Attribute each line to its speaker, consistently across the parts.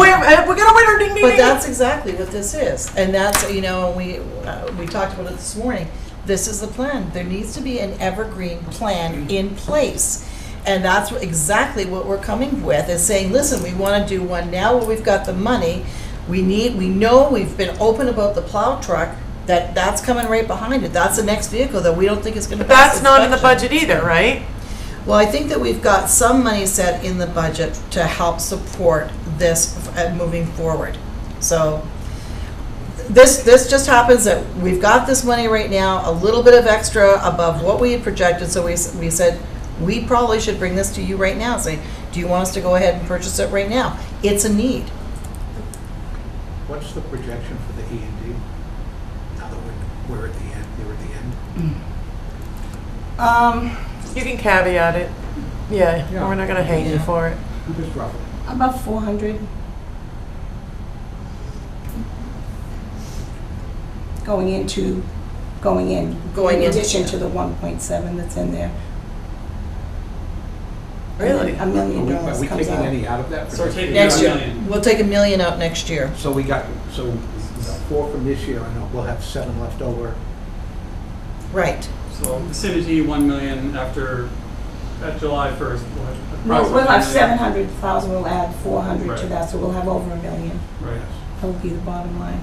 Speaker 1: uh,
Speaker 2: that's exactly what this is. And that's, you know, we, uh, we talked about it this morning. This is the plan. There needs to be an evergreen plan in place. And that's what- exactly what we're coming with, is saying, listen, we want to do one now where we've got the money. We need, we know, we've been open about the plow truck, that, that's coming right behind it. That's the next vehicle that we don't think is going to
Speaker 1: But
Speaker 2: pass
Speaker 1: that's not in the
Speaker 2: inspection.
Speaker 1: budget either, right?
Speaker 2: Well, I think that we've got some money set in the budget to help support this uh, moving forward. So this, this just happens that we've got this money right now, a little bit of extra above what we had projected. So we, s- we said, we probably should bring this to you right now, say, do you want us to go ahead and purchase it right now? It's a need.
Speaker 3: What's the projection for the E and D? Now that we're, we're at the end, they were at the end.
Speaker 4: Um,
Speaker 1: You can caveat it. Yeah, we're not gonna hate you
Speaker 2: Yeah.
Speaker 1: for it.
Speaker 3: Just roughly.
Speaker 4: about four hundred. Going into, going in.
Speaker 2: Going
Speaker 4: In
Speaker 2: in.
Speaker 4: addition to the one point seven that's in there.
Speaker 1: Really?
Speaker 4: A million
Speaker 3: Are we-
Speaker 4: dollars
Speaker 3: Are we
Speaker 4: comes
Speaker 3: taking
Speaker 4: out.
Speaker 3: any out of that?
Speaker 5: So
Speaker 3: for
Speaker 5: take
Speaker 2: Next
Speaker 5: Next
Speaker 2: year,
Speaker 5: year.
Speaker 2: we'll take a million out next year.
Speaker 3: So we got, so four from this year, I know, we'll have seven left over.
Speaker 2: Right.
Speaker 5: So vicinity, one million after, at July first, we'll have.
Speaker 4: No, we'll have seven
Speaker 5: approximately-
Speaker 4: hundred thousand, we'll add four hundred to
Speaker 5: Right.
Speaker 4: that, so we'll have over a million.
Speaker 5: Right.
Speaker 4: That will be the bottom line.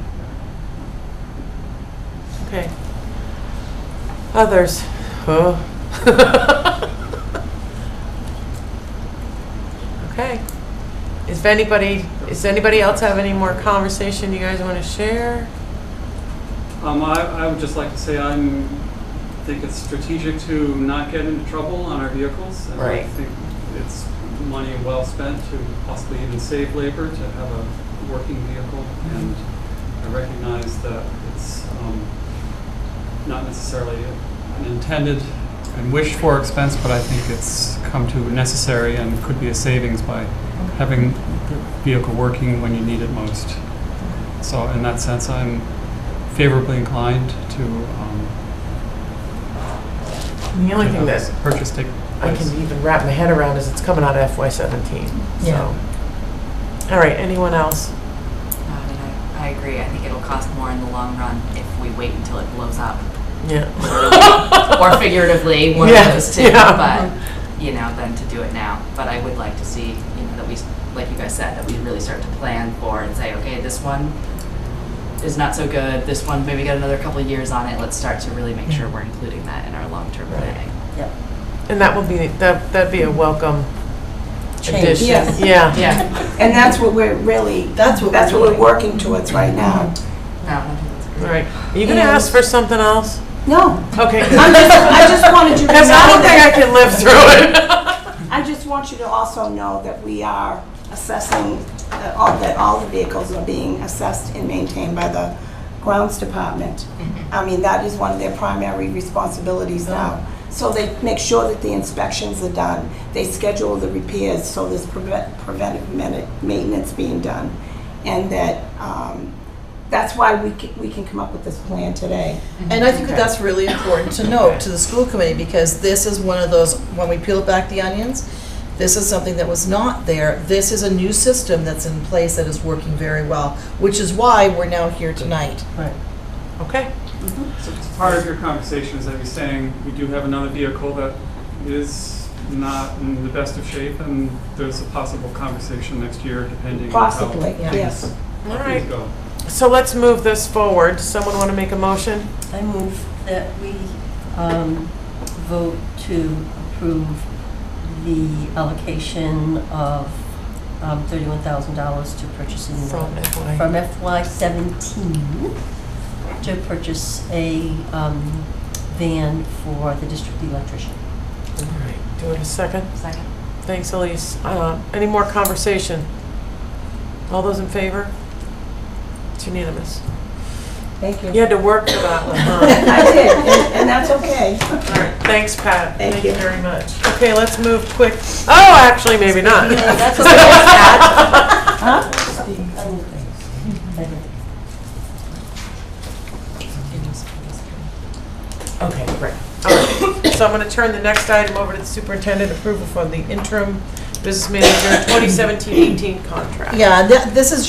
Speaker 1: Okay. Others? Oh. Okay. Is anybody, is anybody else have any more conversation you guys wanna share?
Speaker 5: Um, I, I would just like to say I'm, think it's strategic to not get into trouble on our vehicles. and
Speaker 1: Right.
Speaker 5: I think it's money well spent to possibly even save labor to have a working vehicle. And I recognize that it's, um, not necessarily an intended and wished for expense, but I think it's come to necessary and could be a savings by having the vehicle working when you need it most. So in that sense, I'm favorably inclined to um,
Speaker 1: The only thing that
Speaker 5: purchase take
Speaker 1: I
Speaker 5: place.
Speaker 1: can even wrap my head around is it's coming out of FY seventeen,
Speaker 2: Yeah.
Speaker 1: so. All right, anyone else?
Speaker 6: I mean, Um, I, I agree. I think it'll cost more in the long run if we wait until it blows up,
Speaker 1: Yeah.
Speaker 6: or figuratively, one
Speaker 1: Yeah,
Speaker 6: of those two.
Speaker 1: yeah.
Speaker 6: But you know, than to do it now. But I would like to see, you know, that we, s- like you guys said, that we really start to plan for and say, okay, this one is not so good. This one maybe got another couple of years on it. Let's start to really make sure we're including that in our long-term
Speaker 1: Right.
Speaker 6: planning.
Speaker 1: And that would be, that, that'd be a welcome
Speaker 4: Change.
Speaker 1: addition.
Speaker 4: Yes.
Speaker 1: Yeah.
Speaker 6: Yeah.
Speaker 4: And that's what we're really,
Speaker 2: That's what we're
Speaker 4: that's what we're
Speaker 2: doing.
Speaker 4: working towards right now.
Speaker 6: No, I think that's
Speaker 1: All
Speaker 6: great.
Speaker 1: right. Are you gonna ask for something else?
Speaker 4: No,
Speaker 1: Okay.
Speaker 4: I'm just, I just wanted you to know
Speaker 1: Because I don't think I
Speaker 4: that,
Speaker 1: can live through it.
Speaker 4: I just want you to also know that we are assessing, that all, that all the vehicles are being assessed and maintained by the grounds department. I mean, that is one of their primary responsibilities now. So they make sure that the inspections are done, they schedule the repairs, so there's prevent- preventive medi- maintenance being done. And that, um, that's why we can, we can come up with this plan today.
Speaker 2: And I think
Speaker 1: Okay.
Speaker 2: that that's really important to note to the school committee, because this is one of those, when we peel back the onions, this is something that was not there. This is a new system that's in place that is working very well, which is why we're now here tonight.
Speaker 1: Okay.
Speaker 5: So it's part of your conversation is that you're saying we do have another vehicle that is not in the best of shape, and there's a possible conversation next year depending on how
Speaker 4: Possibly,
Speaker 2: yeah.
Speaker 4: yes.
Speaker 1: All
Speaker 5: things
Speaker 1: right.
Speaker 5: go.
Speaker 1: So let's move this forward. Someone want to make a motion?
Speaker 7: I move that we um, vote to approve the allocation of um, $31,000 to purchasing,
Speaker 1: From
Speaker 7: from
Speaker 1: FY.
Speaker 7: FY17 to purchase a um, van for the district electrician.
Speaker 1: All right. Do it a second.
Speaker 6: Second.
Speaker 1: Thanks, Elise. Uh, Any more conversation? All those in favor? It's unanimous.
Speaker 4: Thank you.
Speaker 1: You had to work for that one, huh?
Speaker 4: I did, and- and that's okay.
Speaker 1: All right. Thanks, Pat.
Speaker 4: Thank you.
Speaker 1: very much. Okay, let's move quick. Oh, actually, maybe not.
Speaker 7: That's what I said.
Speaker 1: Okay, great. All right. So I'm going to turn the next item over to the superintendent approval for the interim business manager 2017-18 contract.
Speaker 2: Yeah, and that- this is